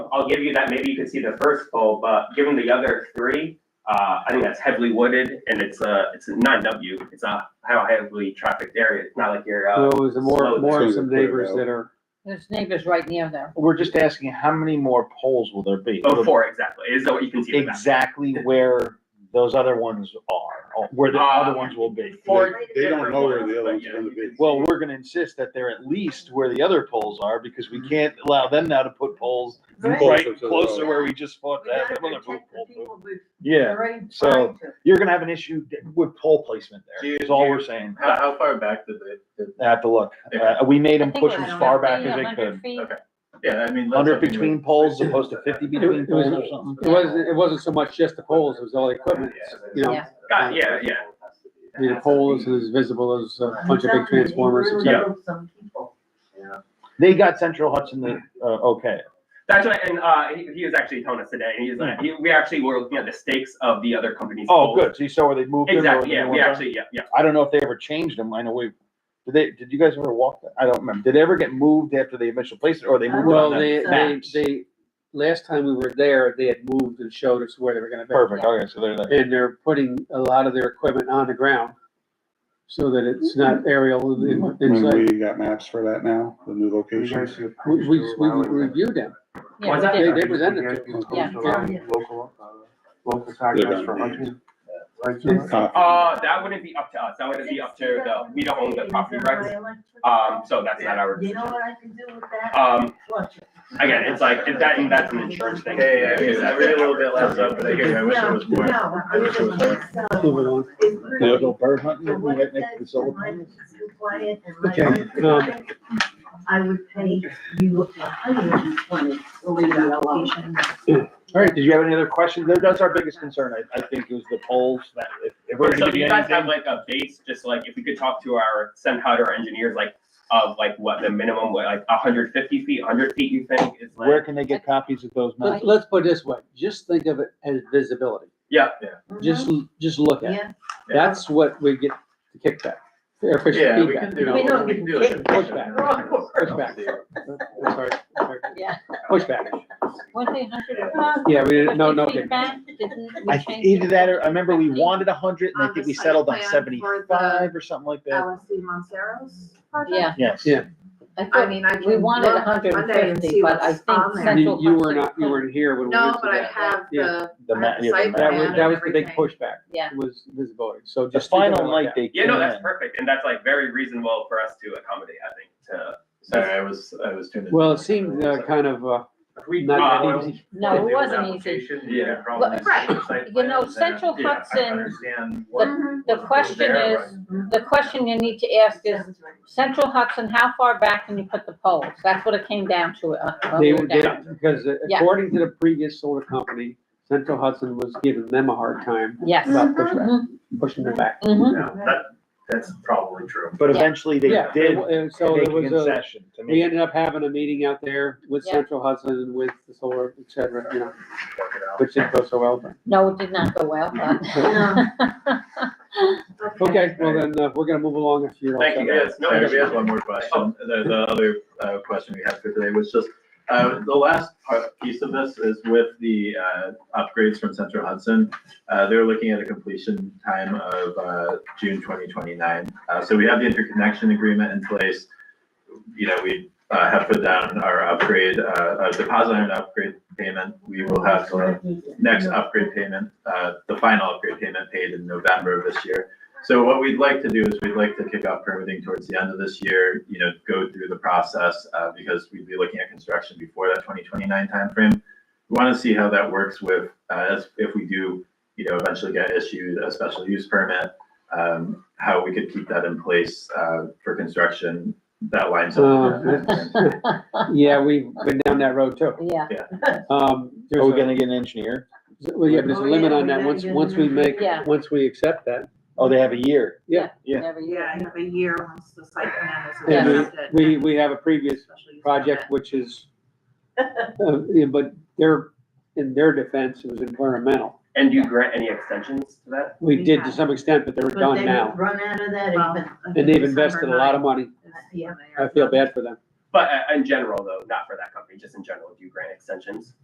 I'll give you that, maybe you could see the first pole, but given the other three, uh, I think that's heavily wooded and it's a, it's a nine W, it's a heavily trafficked area, it's not like you're, So uh, it was more, slow more of down. some neighbors that are, There's neighbors right near there. We're just asking, how many more poles will there be? oh, four, exactly, is that what you can see? in the back. Exactly where those other ones are, or where the Uh, other ones will be. Four They don't different know where ones, the but other one's yeah, gonna you can be. Well, we're gonna insist that they're at least where the other poles are, because we can't allow them now to put poles Closer right to the closer road. where we just fought We to have gotta another pole. protect the people we've Yeah, already so- tried to. you're gonna have an issue with pole placement there, is all we're saying. How, how far back did they, did, I have to look. Uh, we made them I think push it was as far back 100 as they feet, could. 100 feet. Okay. yeah, I mean. let's- Hundred between poles as opposed to fifty between It was- poles or something. it wasn't, it wasn't so much just the poles, it was all the equipment, you know? Yeah. God, yeah, yeah. I mean, The pole isn't as visible as a bunch of big transformers. Some et people cetera. remove Some people. They got Central Hudson, the, uh, okay. That's right, and uh, he, he was actually telling us today, and he was like, he- we actually were looking at the stakes of the other companies. Oh, good. So you saw where they moved them? or Exactly, yeah, they we went- actually, yeah, yeah. I don't know if they ever changed them. I know we, did they, did you guys ever walk? that? I don't remember. Did they ever get moved after the initial placement or they moved it Well, on the they, they, maps? they, last time we were there, they had moved and showed us where they were gonna be. Perfect. Okay, so they're there. And they're putting a lot of their equipment on the ground so that it's Mm-hmm. not aerial in- Mm-hmm. And inside. we got maps for that now, the new locations. We, we, we reviewed them. Yeah, Was that- They, they- they presented it to us. Yeah. Local, uh, local gonna contracts for be- hunting. Right, It's- so- Uh, Uh, that wouldn't be up to us, that would be up to the, we don't own the property rights, um, so that's not our. You know what I can do with that? Um, Flush it. again, it's like, if that, and that's an insurance thing. Hey, I mean, I read a little bit less up, but I hear, you. I wish it was No, more. no, I wish it was more. it's, uh, Moving on. it's really- Go bird hunting So and what right if next to the that's solar in my panels. business client and my Okay, business um, client, I would pay you a hundred and twenty to leave that alone. All right, did you have any other questions? That- That's our biggest concern, I, I think, is the polls, that if, if we're So gonna do do you guys have anything. like a base, just like, if we could talk to our, send out our engineers, like, of like what the minimum, what, like hundred fifty feet, hundred feet you think is like? Where can they get copies of those maps? Let, let's put it this way, just think of it as visibility. Yeah, Just, just look at it. Mm-hmm. Yeah. That's what we get the kickback. Air push Yeah, we feedback. can do, we can do it. Pushback. Pushback. I'm sorry, I'm sorry. Yeah. Pushback. One thing, hundred. Yeah, we didn't, no, no. okay. I, thi- either that or, I remember we wanted a hundred and I think we Obviously, settled on plan for seventy-five or something like that. LSC E Montero's Yeah, Yes. Yeah. I I thought, mean, I can. we wanted look hundred and Monday and see fifty, but I what's on think there. You, Central. you were not, you Hudson- weren't here when we No, went to but I that, right? have Yeah. The the, I ma- have the yeah, the site map. That was, plan that and was the big everything. pushback. Yeah. Was visibility, so The just. think final about it like night that. they Yeah, came no, that's in. perfect, and that's like very reasonable for us to accommodate, I think, to. Sorry, I was, I was tuned in. Well, it seemed, uh, kind of, uh, We- not uh, that easy. No, it They were wasn't easy. application, you Yeah. could probably Well, right. see the site You know, plans and- uh, Central yeah, I Hudson, understand what Mhm. The was question there, is, Mm-hmm. the question you need to ask is, Central Hudson, how far back can you put the poles? That's what it came down to, uh, when They we were, were down. they- because uh, Yeah. according to the previous solar company, Central Hudson was giving them a hard time Yes. about Mhm. pushback, pushing them back. Mhm. but, no, that, that's probably true. But Yeah. eventually they Yeah, did and- and So make there a was a, concession to we me. ended up having a meeting out there with Yeah. Central Hudson and with the solar, et cetera, you know, Work it out. which didn't go so well. but- No, it did not go well, but. Okay, well then, uh, we're gonna move along if you don't. Thank you, guys. Yes, no, we have one more question. The, the other, uh, question we had for today was just, uh, the last part, piece of this is with the, uh, upgrades from Central Hudson. Uh, they're looking at a completion time of, uh, June twenty twenty-nine. Uh, so we have the interconnection agreement in place. You know, we, uh, have put down our upgrade, uh, a deposit on an upgrade payment. We will have uh, the next upgrade payment, uh, the final upgrade payment paid in November of this year. So what we'd like to do is we'd like to kick off permitting towards the end of this year, you know, go through the process, uh, because we'd be looking at construction before that twenty twenty-nine timeframe. We want to see how that works with, uh, as- if we do, you know, eventually get issued a special use permit, um, how we could keep that in place, uh, for construction, that lines up. Uh, Yeah, we've been down that road too. Yeah, Um, Are there's Oh, we a- gonna get an engineer? well, yeah, there's a Oh, limit yeah, on we that, gotta once, get once we them. make, Yeah. once we accept that. Oh, they have a year. Yeah. every Yeah, year. I have a year once the site plan is And Yeah. accepted. we, we have a previous Especially if project, which is, uh, yeah, but their, in their defense, it was environmental. And do you grant any extensions to that? We did to some extent, but they're But done they now, Run out of that Well, even. and they've invested a lot of money. I feel bad for them. But uh, in general, though, not for that company, just in general, do you grant extensions?